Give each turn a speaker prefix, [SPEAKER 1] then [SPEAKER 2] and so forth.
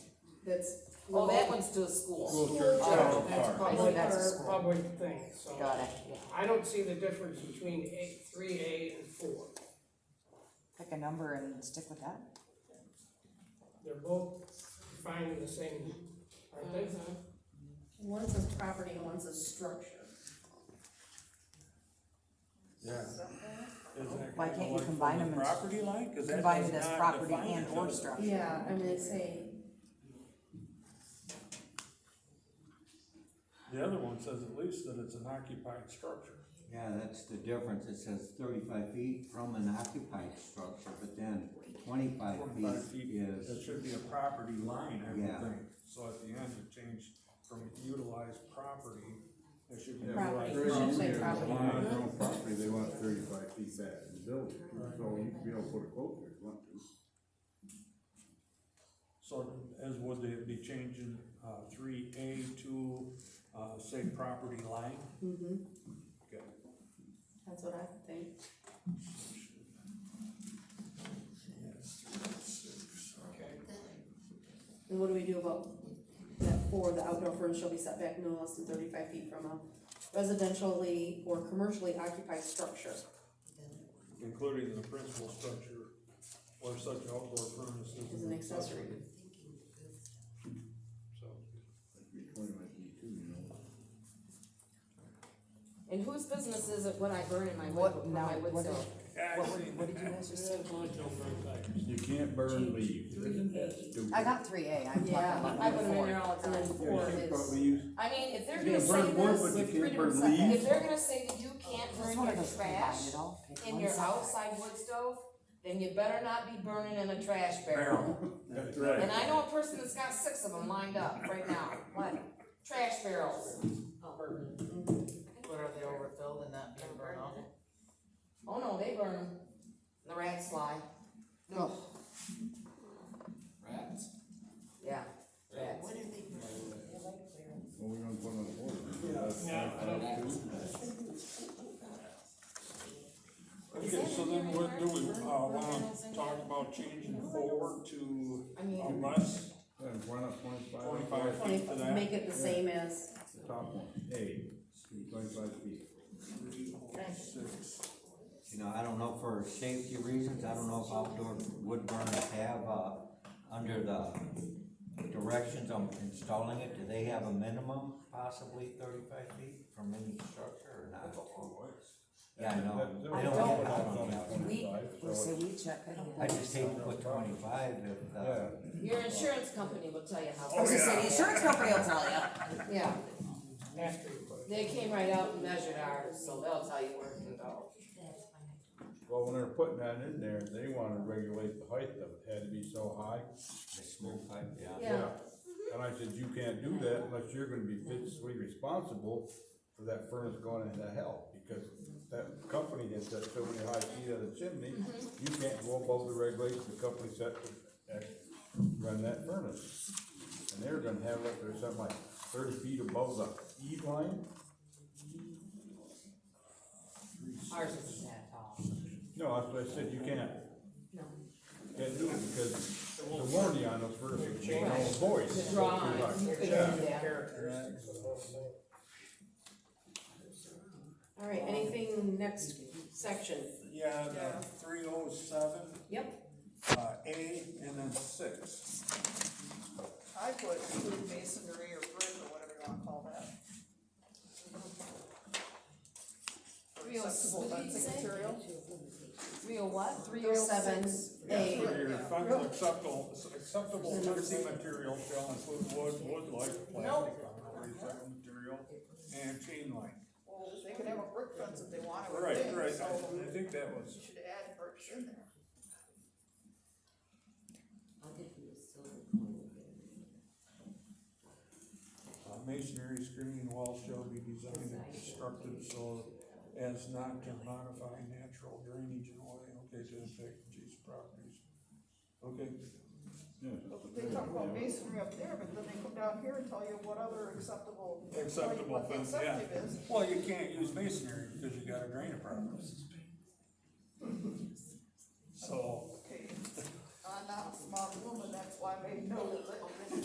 [SPEAKER 1] that's.
[SPEAKER 2] Oh, that one's to a school.
[SPEAKER 3] School church,
[SPEAKER 1] Oh,
[SPEAKER 3] town,
[SPEAKER 1] that's
[SPEAKER 3] park.
[SPEAKER 1] probably-
[SPEAKER 2] Right, that's a
[SPEAKER 1] that's-
[SPEAKER 2] school.
[SPEAKER 4] public thing, so.
[SPEAKER 2] Got it, yeah.
[SPEAKER 4] I don't see the difference between eight, three A and four.
[SPEAKER 2] Pick a number and stick with that.
[SPEAKER 4] They're both defined in the same, aren't they?
[SPEAKER 1] One says property and one says structure.
[SPEAKER 3] Yeah. Isn't it
[SPEAKER 2] Why
[SPEAKER 3] kinda
[SPEAKER 2] can't you
[SPEAKER 3] like
[SPEAKER 2] combine
[SPEAKER 3] from the
[SPEAKER 2] them as-
[SPEAKER 3] Property line, cause that
[SPEAKER 2] Combine
[SPEAKER 3] does
[SPEAKER 2] it as
[SPEAKER 3] not
[SPEAKER 2] property
[SPEAKER 3] define
[SPEAKER 2] and
[SPEAKER 3] it,
[SPEAKER 2] or
[SPEAKER 3] does it?
[SPEAKER 2] structure.
[SPEAKER 1] Yeah, I mean, it's a,
[SPEAKER 3] The other one says at least that it's an occupied structure.
[SPEAKER 5] Yeah, that's the difference, it says thirty-five feet from an occupied structure, but then twenty-five
[SPEAKER 3] Forty-five
[SPEAKER 5] feet
[SPEAKER 3] feet, that
[SPEAKER 5] is,
[SPEAKER 3] should be a property line, I would
[SPEAKER 5] Yeah.
[SPEAKER 3] think. So at the end, it changed from utilized property, it should be.
[SPEAKER 1] Property.
[SPEAKER 3] utilized
[SPEAKER 1] Should say
[SPEAKER 3] property.
[SPEAKER 1] property.
[SPEAKER 6] On
[SPEAKER 3] Line.
[SPEAKER 6] their own property, they want thirty-five feet back in the building, so you can be able to put a quote there if you want to.
[SPEAKER 3] So as would they be changing, uh, three A to, uh, say, property line?
[SPEAKER 1] mhm,
[SPEAKER 3] Okay.
[SPEAKER 1] that's what I think.
[SPEAKER 3] Yes, three, six,
[SPEAKER 4] Okay.
[SPEAKER 1] And what do we do about that four, the outdoor furnace shall be set back no less than thirty-five feet from a residentially or commercially occupied structure?
[SPEAKER 3] Including the principal structure or such outdoor furnace
[SPEAKER 1] Is an accessory.
[SPEAKER 3] So,
[SPEAKER 6] That'd be twenty-five feet too, you know.
[SPEAKER 2] And whose business is it what I burn in my
[SPEAKER 1] wood-
[SPEAKER 2] wood,
[SPEAKER 1] from my
[SPEAKER 2] my
[SPEAKER 1] wood
[SPEAKER 2] wood
[SPEAKER 1] stove?
[SPEAKER 2] What, would- what did you guys just say?
[SPEAKER 6] You can't burn leaves, that's stupid.
[SPEAKER 2] I got three A, I'm talking
[SPEAKER 1] Yeah,
[SPEAKER 2] about
[SPEAKER 1] I put them in
[SPEAKER 2] four.
[SPEAKER 1] there all the time.
[SPEAKER 6] Yeah, you
[SPEAKER 1] Four
[SPEAKER 6] should probably
[SPEAKER 1] is,
[SPEAKER 6] use,
[SPEAKER 2] I mean, if they're
[SPEAKER 6] You
[SPEAKER 2] gonna
[SPEAKER 6] can
[SPEAKER 2] say
[SPEAKER 6] burn wood,
[SPEAKER 2] this,
[SPEAKER 6] but you
[SPEAKER 2] with three
[SPEAKER 6] can't burn
[SPEAKER 2] different settings, if
[SPEAKER 6] leaves.
[SPEAKER 2] they're gonna say that you can't Just burn
[SPEAKER 7] one of
[SPEAKER 2] your
[SPEAKER 7] those
[SPEAKER 2] trash
[SPEAKER 7] combined, it all pick
[SPEAKER 2] in
[SPEAKER 7] one
[SPEAKER 2] your
[SPEAKER 7] side.
[SPEAKER 2] outside wood stove, then you better not be burning in a trash barrel.
[SPEAKER 6] that's
[SPEAKER 2] And
[SPEAKER 6] right.
[SPEAKER 2] I know a person that's got six of them lined up right now, what, trash barrels.
[SPEAKER 8] But are they overfilled and not being burned off?
[SPEAKER 2] Oh no, they burn them. The rats fly. No.
[SPEAKER 9] Rats?
[SPEAKER 2] Yeah, rats.
[SPEAKER 8] What are they
[SPEAKER 6] Well, we're gonna put on the board.
[SPEAKER 4] Yeah.
[SPEAKER 9] I don't know.
[SPEAKER 3] okay, so then what do we, uh, wanna talk about changing forward to uh,
[SPEAKER 2] I mean,
[SPEAKER 3] unless
[SPEAKER 6] Then why not twenty-five?
[SPEAKER 3] Twenty-five.
[SPEAKER 6] Twenty-
[SPEAKER 1] twenty, make it the same as,
[SPEAKER 6] The top one, A, twenty-five feet.
[SPEAKER 5] you know, I don't know for safety reasons, I don't know if outdoor wood burners have, uh, under the directions on installing it, do they have a minimum possibly thirty-five feet from any structure or not? Yeah, I know,
[SPEAKER 6] That- that
[SPEAKER 5] they
[SPEAKER 6] was
[SPEAKER 5] don't have
[SPEAKER 6] all
[SPEAKER 5] it
[SPEAKER 6] about
[SPEAKER 5] on the
[SPEAKER 6] twenty-five,
[SPEAKER 5] outside.
[SPEAKER 2] we-
[SPEAKER 6] so
[SPEAKER 7] Well,
[SPEAKER 6] it's-
[SPEAKER 7] so we check it.
[SPEAKER 5] I just hate to put twenty-five if, uh,
[SPEAKER 6] Yeah.
[SPEAKER 2] your insurance company will tell you
[SPEAKER 7] I
[SPEAKER 2] how.
[SPEAKER 7] was gonna say, the insurance company will tell you.
[SPEAKER 2] Yeah,
[SPEAKER 4] After you put it.
[SPEAKER 2] they came right out and measured ours, so they'll tell you where it can go.
[SPEAKER 6] Well, when they're putting that in there, they wanna regulate the height of it, had to be so high.
[SPEAKER 5] the smoke pipe, yeah.
[SPEAKER 2] Yeah.
[SPEAKER 6] And I said, you can't do that unless you're gonna be physically responsible for that furnace going into hell, because that company that set so many high feet on the chimney, you can't go above the regulations the company set to act- run that furnace. And they're gonna have it up there something like thirty feet above the E line,
[SPEAKER 2] Ours isn't that tall.
[SPEAKER 6] no, that's what I said, you can't.
[SPEAKER 2] No.
[SPEAKER 6] Can't do it, because the warranty on those furnaces, Oh, you know, voice.
[SPEAKER 2] Drawings, you couldn't do that.
[SPEAKER 4] Characteristics of the whole thing.
[SPEAKER 1] all right, anything next section?
[SPEAKER 3] Yeah, the three oh seven.
[SPEAKER 1] Yep.
[SPEAKER 3] Uh, A and then six.
[SPEAKER 8] I put food masonry or brick or whatever you wanna call that.
[SPEAKER 2] Three oh six,
[SPEAKER 8] Acceptable
[SPEAKER 2] what did you
[SPEAKER 8] fencing
[SPEAKER 2] say?
[SPEAKER 8] material.
[SPEAKER 2] Three oh what?
[SPEAKER 1] Three oh seven,
[SPEAKER 3] Yeah,
[SPEAKER 1] A,
[SPEAKER 3] for your funds acceptable, acceptable fencing material shall include wood, wood like plastic, recycled material, and chain link.
[SPEAKER 8] Well, they could have a brick fence if they want, I would
[SPEAKER 3] Right,
[SPEAKER 8] think,
[SPEAKER 3] right,
[SPEAKER 8] so
[SPEAKER 3] I I think that was.
[SPEAKER 8] you should add bricks in there.
[SPEAKER 3] Uh, masonry screening walls shall be designed and constructed so as not to modify natural drainage in a way, okay, to affect these properties. Okay,
[SPEAKER 6] Yeah.
[SPEAKER 8] They talk about masonry up there, but then they come down here and tell you what other acceptable. what-
[SPEAKER 3] Acceptable
[SPEAKER 8] what the
[SPEAKER 3] fence, yeah.
[SPEAKER 8] acceptable is.
[SPEAKER 3] well, you can't use masonry because you got a drain problem. So,
[SPEAKER 8] Okay, I'm not a smart woman, that's why I made note of